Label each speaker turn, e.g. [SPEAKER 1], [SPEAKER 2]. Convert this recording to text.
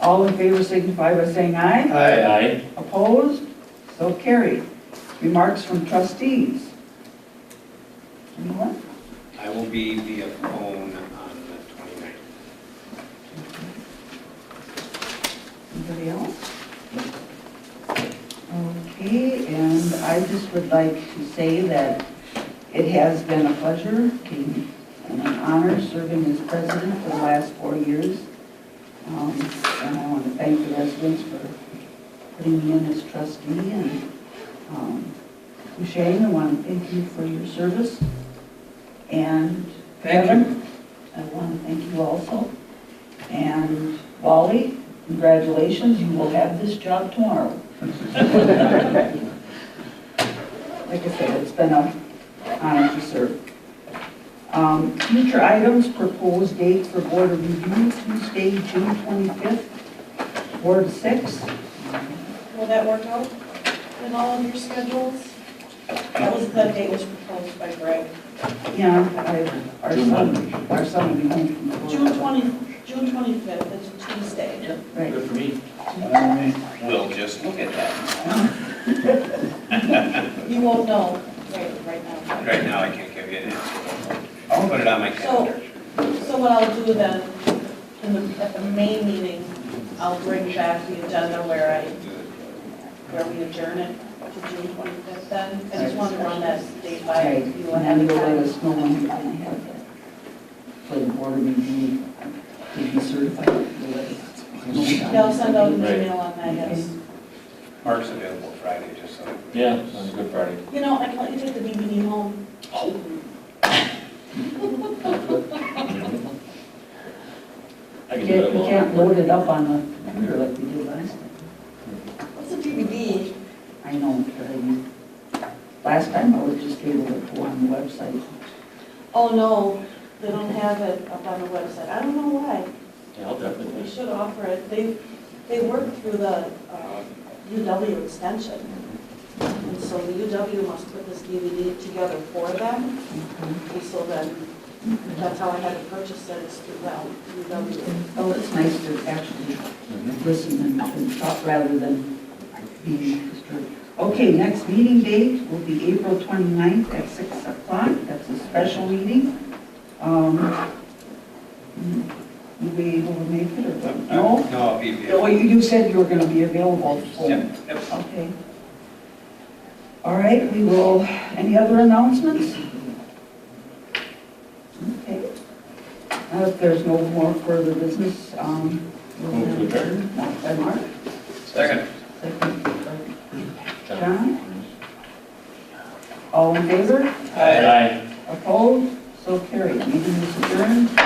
[SPEAKER 1] All in favor signify by saying aye.
[SPEAKER 2] Aye.
[SPEAKER 3] Aye.
[SPEAKER 1] Opposed? So carried. Remarks from trustees. Anyone?
[SPEAKER 4] I will be via phone on the 29th.
[SPEAKER 1] Anybody else? Okay, and I just would like to say that it has been a pleasure being- and an honor serving as president for the last four years. Um, And I want to thank the residents for putting me in as trustee and um, Shane, I want to thank you for your service. And
[SPEAKER 2] Thank you.
[SPEAKER 1] Kevin, I want to thank you also. And Wally, congratulations, you will have this job tomorrow. Like I said, it's been an honor to serve. Um, Future items, proposed date for board of review, Tuesday, June 25th, Ward 6.
[SPEAKER 5] Will that work out in all of your schedules? That was, that date was proposed by Greg.
[SPEAKER 1] Yeah, I, our
[SPEAKER 3] June
[SPEAKER 1] son, our son will be home from the board.
[SPEAKER 5] June 20, June 25th, it's a Tuesday.
[SPEAKER 1] Right.
[SPEAKER 3] Good for me.
[SPEAKER 4] We'll just look at that.
[SPEAKER 5] You won't know right, right now.
[SPEAKER 4] Right now, I can't give you an answer. I'll put it on my calendar.
[SPEAKER 5] So what I'll do then, in the, at the May meeting, I'll bring back the agenda where I, where we adjourn it to June 25th then. I just want to run that date by
[SPEAKER 1] Right,
[SPEAKER 5] you
[SPEAKER 1] and
[SPEAKER 5] ahead
[SPEAKER 1] then
[SPEAKER 5] of
[SPEAKER 1] you'll let
[SPEAKER 5] time.
[SPEAKER 1] us know when you're gonna have that. For the board of review, to be certified. you'll let us know.
[SPEAKER 5] Yeah, I'll send out an
[SPEAKER 3] Right.
[SPEAKER 5] email on that, yes.
[SPEAKER 4] Mark's available Friday, just so.
[SPEAKER 3] Yeah, on Good Friday.
[SPEAKER 5] You know, I can let you take the DVD home.
[SPEAKER 3] I can
[SPEAKER 1] You
[SPEAKER 3] do it
[SPEAKER 1] can't- you can't
[SPEAKER 3] alone.
[SPEAKER 1] load it up on the computer like we did last time.
[SPEAKER 5] What's a DVD?
[SPEAKER 1] I know, but I mean, last time I was just able to go on the website.
[SPEAKER 5] Oh, no, they don't have it up on the website. I don't know why.
[SPEAKER 3] Yeah, I'll
[SPEAKER 5] We
[SPEAKER 3] definitely.
[SPEAKER 5] should offer it. They, they work through the uh, UW extension. And so the UW must put this DVD together for them. And so then, that's how I had to purchase it, is through well, UW.
[SPEAKER 1] Oh, it's nice to actually listen and- and talk rather than be disturbed. Okay, next meeting date will be April 29th at 6 o'clock. That's a special meeting. Um, You'll be able to make it or
[SPEAKER 4] Uh,
[SPEAKER 1] no?
[SPEAKER 4] No, I'll be via.
[SPEAKER 1] Well, you you said you were going to be available, so,
[SPEAKER 4] Yep, yep.
[SPEAKER 1] okay. All right, we will, any other announcements? Okay. Now, If there's no more further business, um, we'll
[SPEAKER 3] Move to adjourn.
[SPEAKER 1] adjourn. Moved by Mark.
[SPEAKER 4] Second.
[SPEAKER 1] Second by John? All in favor?
[SPEAKER 3] Aye.
[SPEAKER 1] Opposed? So carried. Meeting is adjourned.